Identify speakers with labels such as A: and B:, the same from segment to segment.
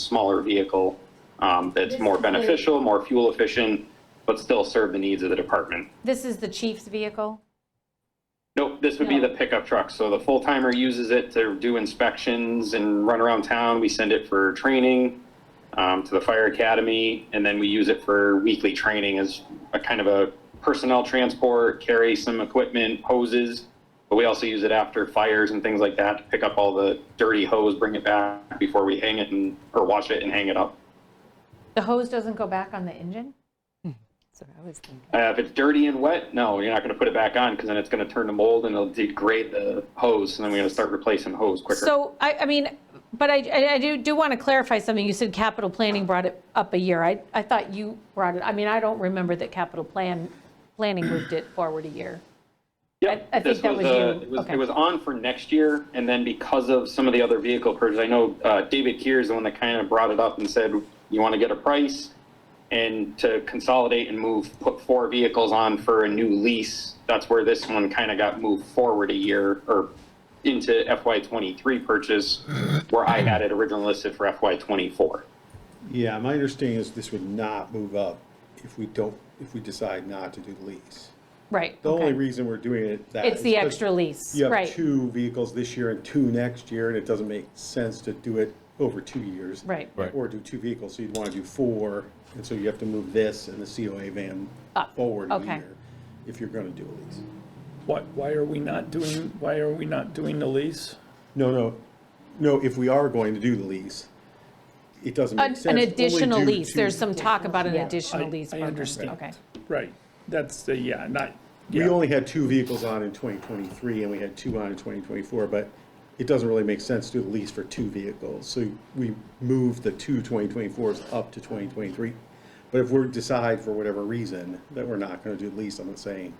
A: smaller vehicle um, that's more beneficial, more fuel efficient, but still serve the needs of the department.
B: This is the chief's vehicle?
A: Nope, this would be
B: No.
A: the pickup truck. So the full timer uses it to do inspections and run around town. We send it for training um, to the fire academy, and then we use it for weekly training as a kind of a personnel transport, carry some equipment, hoses. But we also use it after fires and things like that to pick up all the dirty hose, bring it back before we hang it and or wash it and hang it up.
B: The hose doesn't go back on the engine?
C: Hmm. That's what I was thinking.
A: Uh, if it's dirty and wet, no, you're not going to put it back on because then it's going to turn to mold and it'll degrade the hose, and then we're going to start replacing hose quicker.
B: So, I, I mean, but I, I I do, do want to clarify something. You said capital planning brought it up a year. I, I thought you brought it, I mean, I don't remember that capital plan, planning moved it forward a year.
A: Yeah,
B: I- I think
A: this
B: that was
A: uh,
B: you.
A: It was,
B: Okay.
A: it was on for next year, and then because of some of the other vehicle purchases, I know uh, David Keir is the one that kind of brought it up and said, you want to get a price? And to consolidate and move, put four vehicles on for a new lease, that's where this one kind of got moved forward a year or into FY '23 purchase, where I had it originally listed for FY '24.
D: Yeah, my understanding is this would not move up if we don't, if we decide not to do the lease.
B: Right,
D: The only
B: okay.
D: reason we're doing it that.
B: It's
D: is
B: the
D: 'cause
B: extra lease,
D: You have
B: right,
D: two vehicles this year and two next year, and it doesn't make sense to do it over two years.
B: right,
E: Right.
D: Or do two vehicles, so you'd want to do four, and so you have to move this and the COA van
B: Up,
D: forward a
B: okay.
D: year if you're going to do a lease.
F: Why, why are we not doing, why are we not doing the lease?
D: No, no, no, if we are going to do the lease, it doesn't
B: An
D: make sense.
B: an
D: to only
B: additional
D: do
B: lease,
D: two-
B: there's some talk about an
C: Yeah.
B: additional
F: I-
B: lease.
F: I
B: program.
F: understand.
B: Okay,
F: Right, that's the, yeah, not,
D: We
F: yeah,
D: only had two vehicles on in 2023 and we had two on in 2024, but it doesn't really make sense to do the lease for two vehicles. So we moved the two 2024s up to 2023. But if we decide for whatever reason that we're not going to do the lease, I'm not saying,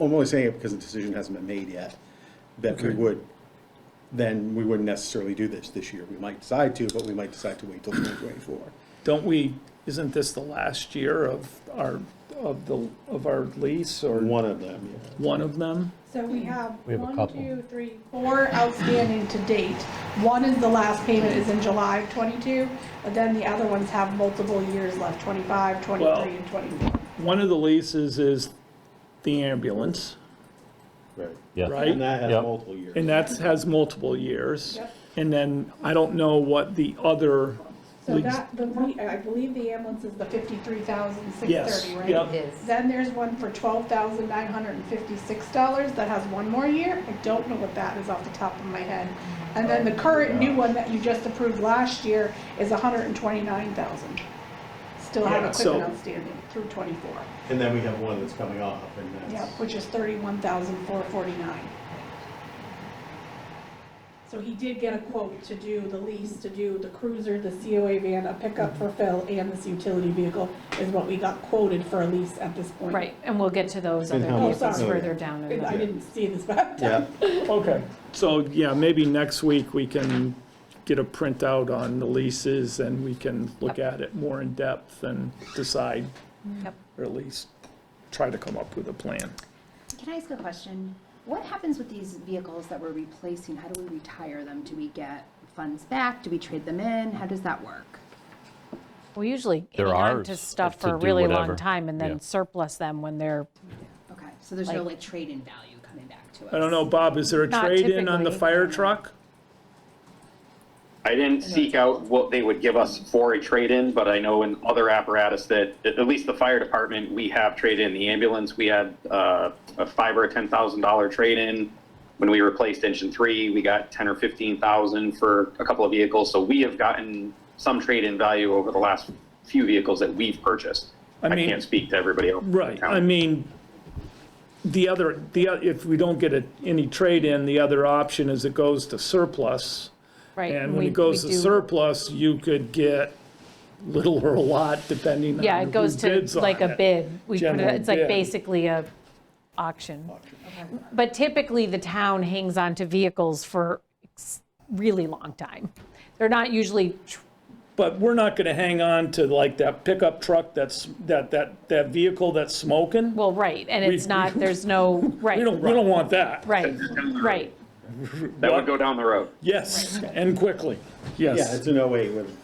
D: I'm only saying it because the decision hasn't been made yet, that we
F: Okay.
D: would, then we wouldn't necessarily do this this year. We might decide to, but we might decide to wait till 2024.
F: don't we, isn't this the last year of our, of the, of our lease or
D: One of them, yeah.
F: one of them?
G: So we have
E: Hmm. We have a
G: one,
E: couple.
G: two, three, four outstanding to date. One is the last payment is in July of '22, but then the other ones have multiple years left, '25,
F: Well-
G: '23, and '24.
F: One of the leases is the ambulance,
D: Right.
E: Yeah,
D: And
F: right?
D: that has
E: Yep.
D: multiple years.
F: And that has multiple years.
G: Yep.
F: And then I don't know what the other,
G: So
F: Lease.
G: that, the, we- I believe the ambulance is the 53,630,
F: yes,
G: right?
F: yep,
C: It is.
G: Then there's one for $12,956 that has one more year. I don't know what that is off the top of my head. And then the current new one that you just approved last year is $129,000. Still have
F: Yeah,
G: equipment
F: so-
G: outstanding through '24.
D: And then we have one that's coming off and that's.
G: Yep, which is $31,449. So he did get a quote to do the lease, to do the cruiser, the COA van, a pickup for Phil, and this utility vehicle is what we got quoted for a lease at this point.
B: right, and we'll get to those
D: And
B: other
D: how much
B: vehicles
G: is it?
B: further down in
G: I
B: the,
G: didn't see this, but I'm
D: Yeah.
F: okay. So, yeah, maybe next week we can get a printout on the leases and we can look at it more in depth and decide,
B: Yep.
F: or at least try to come up with a plan.
H: Can I ask a question? What happens with these vehicles that we're replacing? How do we retire them? Do we get funds back? Do we trade them in? How does that work?
B: we usually hang on
E: They're ours
B: to stuff
E: to
B: for a
E: do
B: really long
E: whatever.
B: time and
E: Yeah.
B: then surplus them when they're
H: Okay, so there's no
B: Like-
H: like trade-in value coming back to us?
F: I don't know, Bob, is there a
B: Not
F: trade-in on the
B: typically.
F: fire truck?
A: I didn't seek out what they would give us for a trade-in, but I know in other apparatus that, at at least the fire department, we have trade-in. The ambulance, we had uh, a five or a ten thousand dollar trade-in. When we replaced engine three, we got ten or fifteen thousand for a couple of vehicles. So we have gotten some trade-in value over the last few vehicles that we've purchased.
F: I
A: I
F: mean-
A: can't speak to everybody else. in
F: Right,
A: town.
F: I mean, the other, the, o- if we don't get a- any trade-in, the other option is it goes to surplus.
B: Right.
F: And
B: we-
F: when it goes
B: we
F: to
B: do-
F: surplus, you could get little or a lot depending on
B: Yeah, it goes
F: who
B: to
F: bids on
B: like a
F: it.
B: bid. We put it,
F: General
B: it's like
F: bid.
B: basically a auction. But typically, the town hangs on to vehicles for ex- really long time. They're not usually, tr-
F: But we're not gonna hang on to like that pickup truck that's, that, that, that vehicle that's smoking.
B: well, right, and it's
F: We-
B: not, there's no, right,
F: We don't, we don't want that.
B: right, right.
A: That would go down the road.
F: Yes, and quickly, yes.
D: Yeah, it's an 08 with